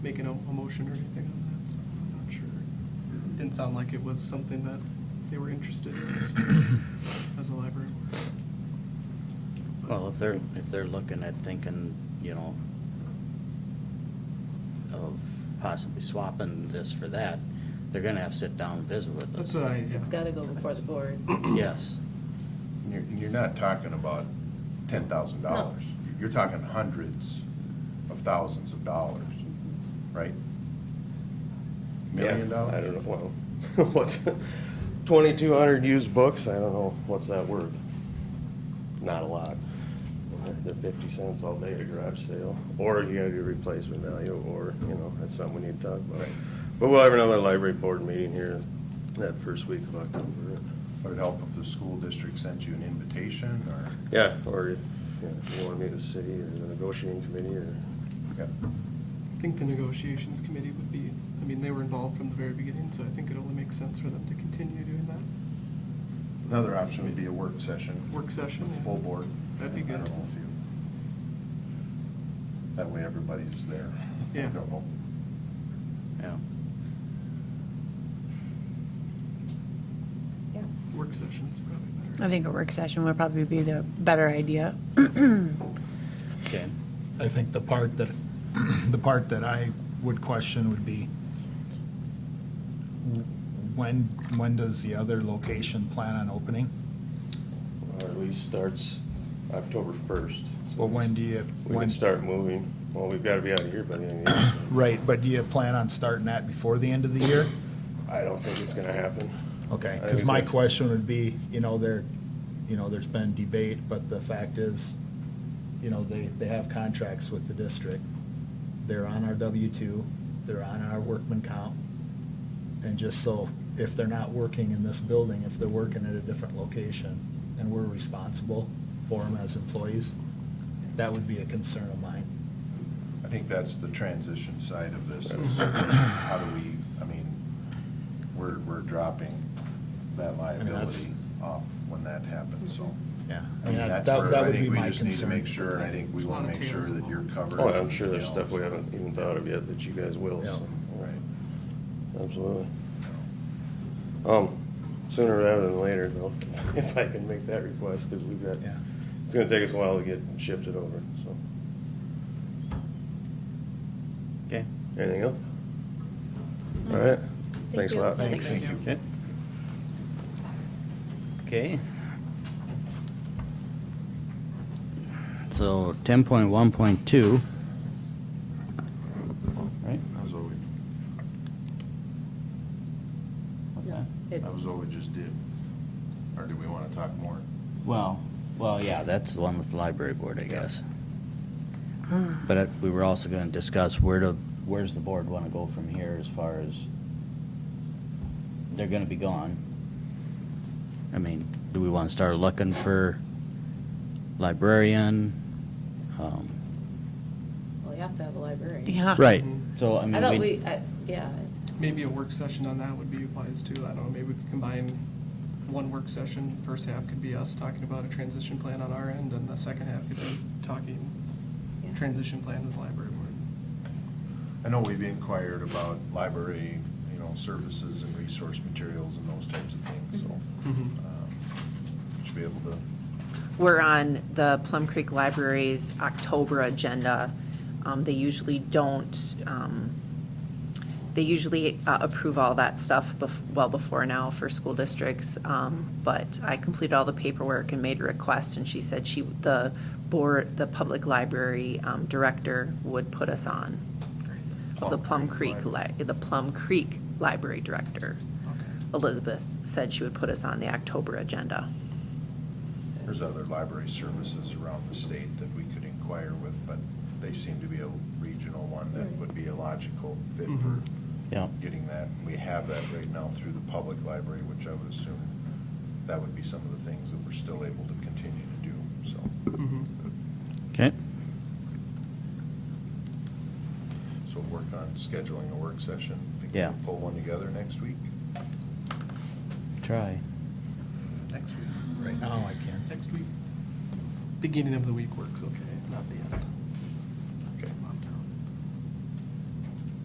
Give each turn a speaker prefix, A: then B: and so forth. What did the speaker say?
A: making a, a motion or anything on that, so I'm not sure. Didn't sound like it was something that they were interested in so, as a library. board. But-
B: Well, if they're, if they're looking at thinking, you know, of possibly swapping this for that, they're gonna have to sit down and visit with us.
A: That's what I, yeah.
C: It's gotta go before the board.
B: Yes,
D: And you're, and you're not talking about ten thousand dollars. You're talking hundreds of thousands of dollars, right? Million
E: Yeah,
D: dollars?
E: I don't know, well, what's, twenty-two hundred used books, I don't know, what's that worth? Not a lot. They're fifty cents all day at a garage sale, or you gotta do replacement value, or, you know, that's something we need to talk about. But we'll have another library board meeting here that first week of October.
D: Would it help if the school district sent you an invitation or?
E: Yeah, or if you know, if you wanna meet a city or the negotiating committee or,
A: I think the negotiations committee would be, I mean, they were involved from the very beginning, so I think it only makes sense for them to continue doing that.
D: Another option would be a work session.
A: Work session,
D: with
A: yeah.
D: Full board.
A: That'd be
D: I don't
A: good.
D: know if you. That way everybody's there.
A: Yeah.
D: I don't know.
B: yeah.
C: Yeah.
A: Work session is probably better.
F: I think a work session would probably be the better idea.
B: Okay,
G: I think the part that, the part that I would question would be, when, when does the other location plan on opening?
E: or at least starts October first.
G: Well, when do you?
E: We
G: when-
E: can start moving, well, we've gotta be out of here by the end of the year. so.
G: Right, but do you plan on starting that before the end of the year?
E: I don't think it's gonna happen.
G: Okay,
E: I
G: because
E: think
G: my
E: so.
G: question would be, you know, there, you know, there's been debate, but the fact is, you know, they, they have contracts with the district. They're on our W-2, they're on our workman comp. And just so, if they're not working in this building, if they're working at a different location, and we're responsible for them as employees, that would be a concern of mine.
D: I think that's the transition side of this, is how do we, I mean, we're, we're dropping that
G: that's-
D: liability off when that happens, so.
G: Yeah.
D: I mean, that's
G: that-
D: where
G: that
D: I
G: would be
D: think we
G: my
D: just need to
G: concern.
D: make sure, and I think we
A: There's a
D: wanna
A: lot of
D: make sure
A: tails
D: that you're
A: involved.
D: covered.
E: Oh, I'm sure
D: you
E: there's
D: know,
E: stuff we haven't even thought of yet that you guys will, so.
G: Yeah.
D: Right.
E: Absolutely. Um, sooner rather than later though, if I can make that request, cause we've got,
G: Yeah.
E: it's gonna take us a while to get shifted over, so.
B: okay,
E: Anything else? All right, thanks a lot.
G: Thanks.
C: Thank you.
B: okay. Okay. So ten point one point two. Right?
D: That was what we,
B: What's
C: No,
B: that?
C: It's,
D: that was what we just did. Or do we wanna talk more?
B: Well, well, yeah, that's the one with the library board, I guess.
C: Hmm.
B: But
D: uh,
B: it- we were also gonna discuss where to, where's the board wanna go from here as far as, they're gonna be gone. I mean, do we wanna start looking for librarian? Um,
C: well, you have to have a library.
F: Yeah.
B: Right,
A: Mhm.
B: so I
C: I thought
B: mean,
C: we,
B: we,
C: I- yeah,
A: Maybe a work session on that would be wise too. I don't know, maybe we could combine one work session. First half could be us talking about a transition plan on our end, and the second half could be talking
C: Yeah.
A: transition plan with the library board.
D: I know we've inquired about library, you know, services and resource materials and those types of things, so.
A: Mhm.
D: um, Should be able to,
H: We're on the Plum Creek Library's October agenda. Um, They usually don't, um, they usually uh, approve all that stuff bef- well before now for school districts. Um, But I completed all the paperwork and made a request, and she said she, the board, the public library um, director would put us on. Of The
D: Plum
H: Plum
D: Creek
H: Creek, Li- the Plum Creek Library Director. Elizabeth said she would put us on the October agenda.
D: there's other library services around the state that we could inquire with, but they seem to be a regional one that would be a logical fit for
A: Mhm.
B: yeah,
D: getting that. We have that right now through the public library, which I would assume that would be some of the things that we're still able to continue to do, so.
A: Mhm.
B: okay,
D: So work on scheduling a work session. Think
B: Yeah.
D: we'll Pull one together next week?
B: try.
A: Next week.
G: Right now, Oh, I can't.
A: Next week. Beginning of the week works okay, not the end.